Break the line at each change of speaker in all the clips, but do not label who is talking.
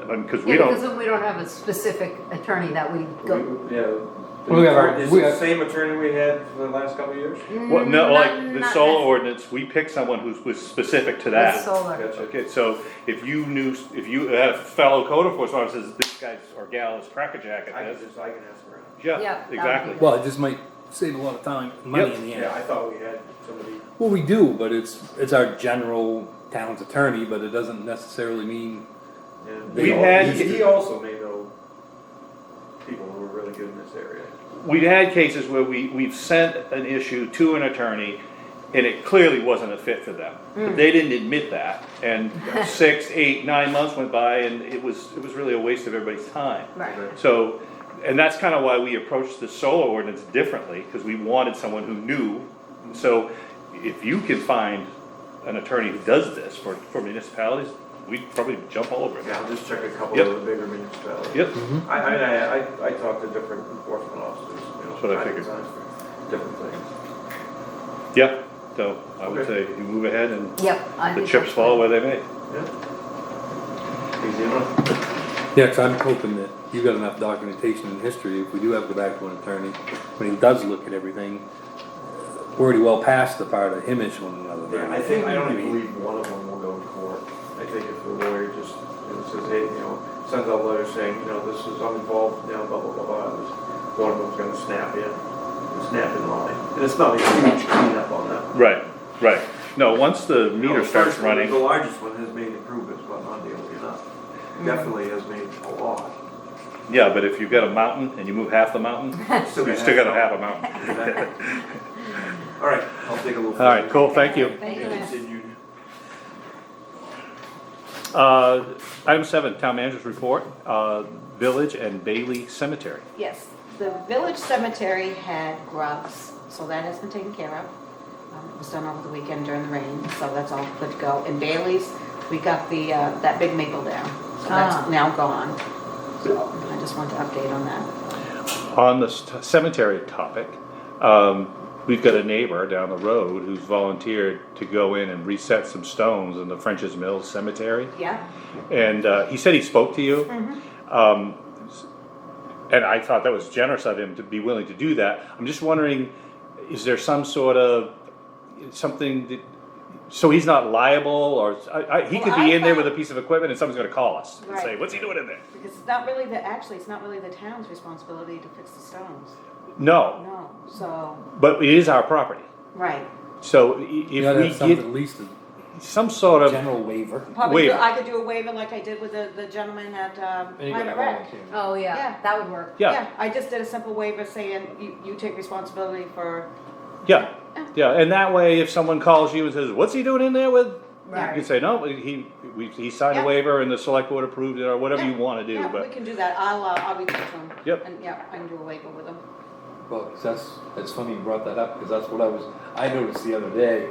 because we
Yeah, because
don't,
then we don't have a specific attorney that we go.
Yeah.
Well, we have our-
Is
we
it the
have-
same attorney we had for the last couple of years?
well, no, like the
Mm, Not-
solar
not-
ordinance, we pick someone who's, was specific to that.
That's solar.
Gotcha.
Okay, so if you knew, if you had a fellow code enforcement officer says this guy's or gal is cracker jacket,
I can
that's,
just, I can ask around.
Yeah,
yeah,
that would be
exactly.
good.
Well, it just might save a lot of time, money
Yep.
in the end.
Yeah, I thought we had somebody.
Well, we do, but it's it's our general town's attorney, but it doesn't necessarily mean
yeah.
They
We've
all
had-
He he also may know people who are really good in this area.
We've had cases where we, we've sent an issue to an attorney and it clearly wasn't a fit for them.
Mm.
But they didn't admit that and six, eight, nine months went by and it was, it was really a waste of everybody's time.
Right.
So, and that's kind of why we approached the solar ordinance differently, because we wanted someone who knew. So if you can find an attorney who does this for, for municipalities, we'd probably jump all over
Yeah, Mm-hmm.
it.
I'll just check a couple
Yep.
of the bigger municipalities.
Yep,
Mm-hmm.
I, I, I, I- I talk to different enforcement officers, you know.
That's what I
time to
figured.
time for Different things.
yeah, so I would say
Okay.
you move ahead and
Yep. I
the
think
chips
that's
fall where
good.
they may.
Yeah. Easy enough.
Yeah, i I'm hoping that you've got enough documentation and history, if we do have to go back to an attorney, when he does look at everything, uh, we're already well past the part of him issuing another
Yeah,
variance.
I think, I don't even believe one of them will go to court. I think if the lawyer just, you know, says, hey, you know, sends out letters saying, you know, this is, I'm involved now, blah, blah, blah, blah, and this- one of them's gonna snap in, snap in line. And it's not a huge cleanup on that.
Right, right. No, once the
You know,
meter
the
starts
first one, The
running,
largest one has made improvements, but not nearly enough. Definitely has made a lot.
yeah, but if you've got a mountain and you move half the mountain, you still got a half a mountain.
Exactly. All right, I'll take a little.
All right, cool, thank you.
Thank you.
Continued.
Uh, Item seven, town manager's report, uh, Village and Bailey Cemetery.
Yes, the village cemetery had grubs, so that has been taken care of. Um, It was done over the weekend during the rain, so that's all good to go. And Bailey's, we got the, uh, that big maple down,
Ah.
so that's now gone. So I just wanted to update on that.
On the st- cemetery topic, um, we've got a neighbor down the road who's volunteered to go in and reset some stones in the French's Mills Cemetery.
Yeah,
And uh, he said he spoke to you.
Mm-hmm.
Um, and I thought that was generous of him to be willing to do that. I'm just wondering, is there some sort of something that, so he's not liable or I, I, he could
Well,
be
I
in there
thought-
with a piece of equipment and someone's going to call us and say,
Right.
what's he doing in there?
because it's not really the, actually, it's not really the town's responsibility to fix the stones.
No,
No, so,
but it is our property.
right.
So i- if
You gotta have
we
something,
get
at least
some sort
a
of
general waiver.
Probably, do-
Waiver.
I could do a waiver like I did with the, the gentleman at, um, Private Rec.
Oh, yeah,
Yeah.
that would work.
Yeah.
I just did a simple waiver saying you, you take responsibility for.
yeah yeah and that way if someone calls you and says what's he doing in there with you can
Right.
say no he we, he signed a
Yeah.
waiver and the select board approved it or whatever you
Yeah,
want to do
yeah,
but
we can do that. I'll uh, I'll reach out to him.
Yep.
And yeah, I can do a waiver with him.
Well, 'cause that's, that's funny you brought that up, because that's what I was, I noticed the other day.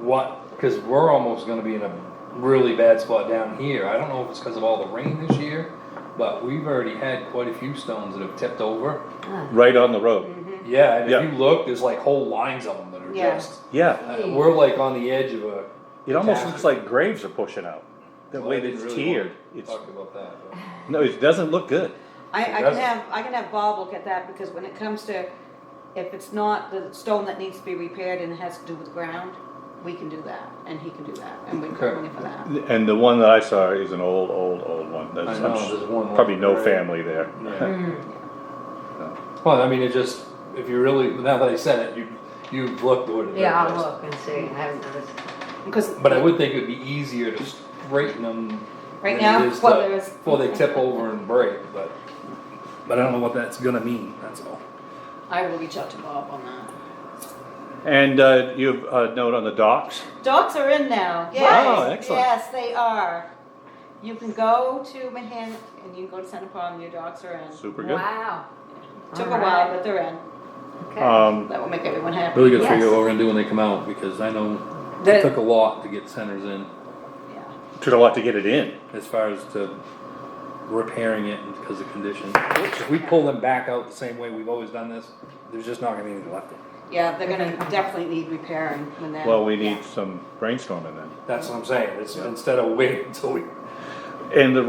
What, because we're almost gonna be in a really bad spot down here, I don't know if it's because of all the rain this year, but we've already had quite a few stones that have tipped over.
right on the road
Yeah, and
Yeah.
if you look, there's like whole lines of them that are
Yeah.
just.
yeah
uh, we're like on the edge of a.
It almost looks like graves are pushing out. The
Well,
way
I
that
didn't
it's
really
tiered.
wanna
It's,
Talk about that. but-
no, it doesn't look good.
I, I can
That's-
have I can have Bob look at that because when it comes to if it's not the stone that needs to be repaired and it has to do with ground, we can do that and he can do that and we can
Okay.
bring it for that.
And the one that I saw is an old, old, old one. That's,
I know,
I'm s-
there's one
probably
like
no
that.
family there.
Well, I mean, it just, if you really, now that I said it, you, you looked what it
Yeah, I'll
was.
look and see. I haven't noticed.
Because
But I would think it'd be easier to straighten them.
Right
than it
now?
is to-
Well, there is-
Before they tip over and break, but. But I don't know what that's gonna mean, that's all.
I will reach out to Bob on that.
And uh, you have a note on the docks.
Dogs are in now. Yes.
Wow, excellent.
Yes, they are. You can go to Mahan and you can go to Center Pond and your dogs are in.
Super good.
Wow.
Took a
All right.
while, but they're in.
Okay.
Um,
That will make everyone happy.
Really gotta figure
Yes.
out what we're gonna do when they come out, because I know
The-
it took a lot to get centers in,
Yeah.
took a lot to get it in.
as far as to repairing it because of condition. If we pull them back out the same way we've always done this, there's just not gonna be anything left.
Yeah, they're gonna definitely need repairing when they're.
Well, we need some brainstorming then.
That's what I'm saying, it's instead of waiting until we
And the